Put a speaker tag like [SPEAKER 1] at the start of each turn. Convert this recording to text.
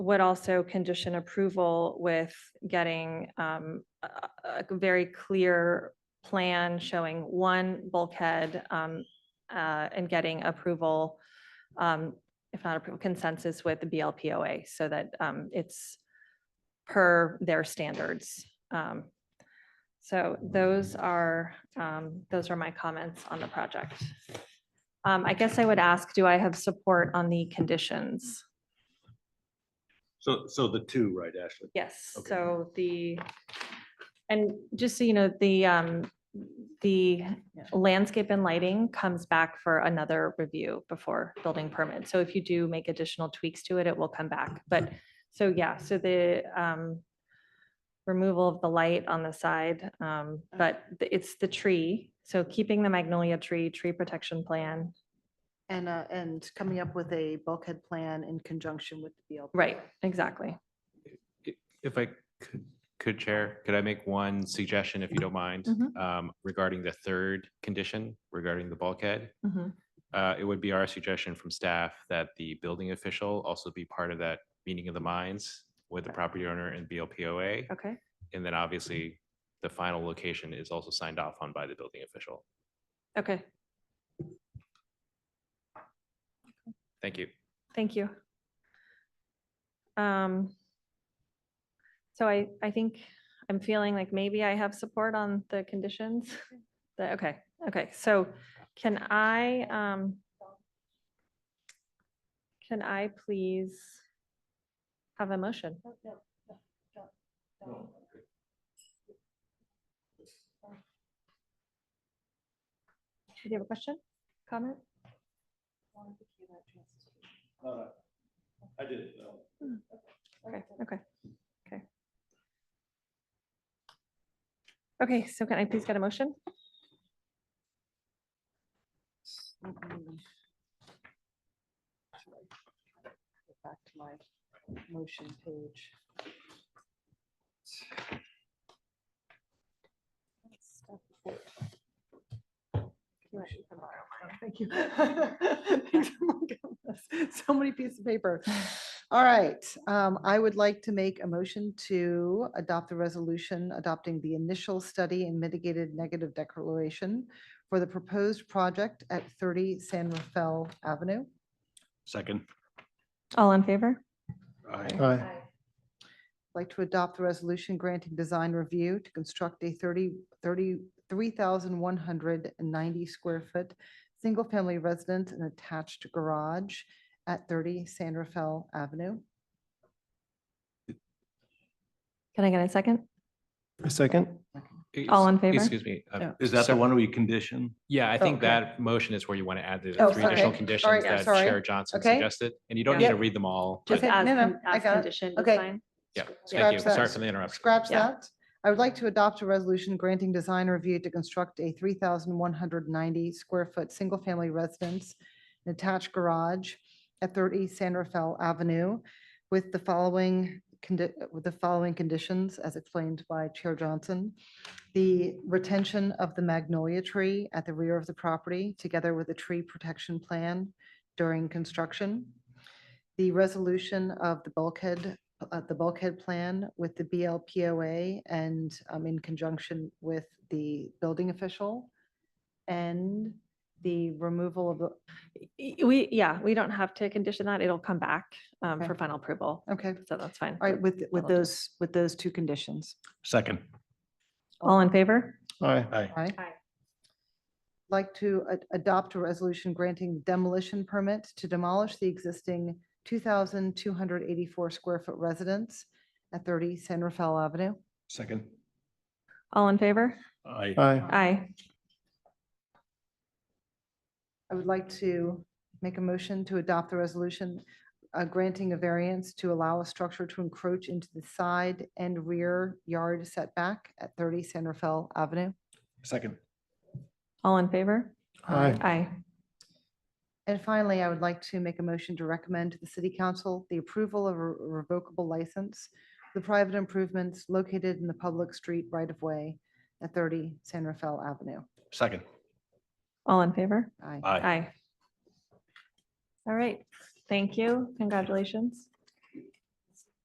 [SPEAKER 1] would also condition approval with getting um, a a- a very clear plan showing one bulkhead um, uh, and getting approval, um, if not approval, consensus with the BLPOA so that um, it's per their standards. Um, So those are, um, those are my comments on the project. Um, I guess I would ask, do I have support on the conditions?
[SPEAKER 2] So, so the two, right, Ashley?
[SPEAKER 1] Yes,
[SPEAKER 2] Okay.
[SPEAKER 1] so the, and just so you know, the, um, the landscape and lighting comes back for another review before building permit. So if you do make additional tweaks to it, it will come back. But, so yeah, so the, um, removal of the light on the side, um, but the- it's the tree. So keeping the magnolia tree, tree protection plan.
[SPEAKER 3] And, uh, and coming up with a bulkhead plan in conjunction with the BLP.
[SPEAKER 1] Right, exactly.
[SPEAKER 4] If I could, could Chair, could I make one suggestion, if you don't mind?
[SPEAKER 1] Mhm.
[SPEAKER 4] um, Regarding the third condition regarding the bulkhead?
[SPEAKER 1] Mhm.
[SPEAKER 4] Uh, It would be our suggestion from staff that the building official also be part of that meeting of the minds with the property owner and BLPOA.
[SPEAKER 1] Okay,
[SPEAKER 4] And then obviously, the final location is also signed off on by the building official.
[SPEAKER 1] okay,
[SPEAKER 4] Thank you.
[SPEAKER 1] Thank you. Um, So I, I think I'm feeling like maybe I have support on the conditions. The- Okay, okay, so can I, um, can I please have a motion? Do you have a question, comment?
[SPEAKER 2] I did.
[SPEAKER 1] Okay, okay, okay. Okay, so can I please get a motion?
[SPEAKER 3] Mm-mm. Go Back to my motion page. Thank you. So many pieces of paper. All right, um, I would like to make a motion to adopt the resolution adopting the initial study and mitigated negative declaration for the proposed project at 30 San Rafael Avenue.
[SPEAKER 2] Second.
[SPEAKER 1] All in favor?
[SPEAKER 2] Aye.
[SPEAKER 3] Like to adopt the resolution granting design review to construct a 30, 30, 3,190 square foot, single-family residence and attached garage at 30 San Rafael Avenue.
[SPEAKER 1] Can I get a second?
[SPEAKER 5] A second?
[SPEAKER 1] All in
[SPEAKER 4] Ex-
[SPEAKER 1] favor?
[SPEAKER 4] Excuse me. uh,
[SPEAKER 5] Yeah.
[SPEAKER 2] Is that the
[SPEAKER 4] so-
[SPEAKER 2] one we condition?
[SPEAKER 4] Yeah, I think
[SPEAKER 3] Oh, okay.
[SPEAKER 4] that motion is where you want to add the
[SPEAKER 3] Oh,
[SPEAKER 4] three additional
[SPEAKER 3] okay.
[SPEAKER 4] conditions
[SPEAKER 3] Alright, yeah,
[SPEAKER 4] that
[SPEAKER 3] sorry.
[SPEAKER 4] Chair Johnson
[SPEAKER 3] Okay.
[SPEAKER 4] suggested. And you don't need
[SPEAKER 3] Yep.
[SPEAKER 4] to read them all. but-
[SPEAKER 1] Just
[SPEAKER 3] Okay,
[SPEAKER 1] as,
[SPEAKER 3] no, no,
[SPEAKER 1] con-
[SPEAKER 3] I
[SPEAKER 1] as
[SPEAKER 3] got it.
[SPEAKER 1] conditioned is
[SPEAKER 3] Okay.
[SPEAKER 1] fine.
[SPEAKER 4] Yeah,
[SPEAKER 3] Scratch
[SPEAKER 4] thank you.
[SPEAKER 3] that.
[SPEAKER 4] Sorry for the interruption.
[SPEAKER 3] Scratch
[SPEAKER 1] Yeah.
[SPEAKER 3] that. I would like to adopt a resolution granting design review to construct a 3,190 square foot, single-family residence, and attached garage at 30 San Rafael Avenue with the following, condi- with the following conditions as explained by Chair Johnson. The retention of the magnolia tree at the rear of the property, together with a tree protection plan during construction. The resolution of the bulkhead uh, the bulkhead plan with the BLPOA and um, in conjunction with the building official and the removal of, the
[SPEAKER 1] Y- Uh, We, yeah, we don't have to condition that. It'll come back um,
[SPEAKER 3] Okay.
[SPEAKER 1] for final approval.
[SPEAKER 3] okay,
[SPEAKER 1] So that's fine.
[SPEAKER 3] all right, with, with
[SPEAKER 1] That'll do.
[SPEAKER 3] those, with those two conditions.
[SPEAKER 2] Second.
[SPEAKER 1] All in favor?
[SPEAKER 5] Aye.
[SPEAKER 2] Aye.
[SPEAKER 3] Right?
[SPEAKER 1] Aye.
[SPEAKER 3] Like to a- adopt a resolution granting demolition permit to demolish the existing 2,284 square foot residence at 30 San Rafael Avenue.
[SPEAKER 2] Second.
[SPEAKER 1] All in favor?
[SPEAKER 2] Aye.
[SPEAKER 5] Aye.
[SPEAKER 1] Aye.
[SPEAKER 3] I would like to make a motion to adopt the resolution uh, granting a variance to allow a structure to encroach into the side and rear yard setback at 30 San Rafael Avenue.
[SPEAKER 2] Second.
[SPEAKER 1] All in favor?
[SPEAKER 5] Aye.
[SPEAKER 1] Aye.
[SPEAKER 3] And finally, I would like to make a motion to recommend to the city council the approval of a revocable license, for the private improvements located in the public street right-of-way at 30 San Rafael Avenue.
[SPEAKER 2] Second.
[SPEAKER 1] All in favor?
[SPEAKER 3] Aye.
[SPEAKER 2] Aye.
[SPEAKER 1] Aye. All right, thank you. Congratulations.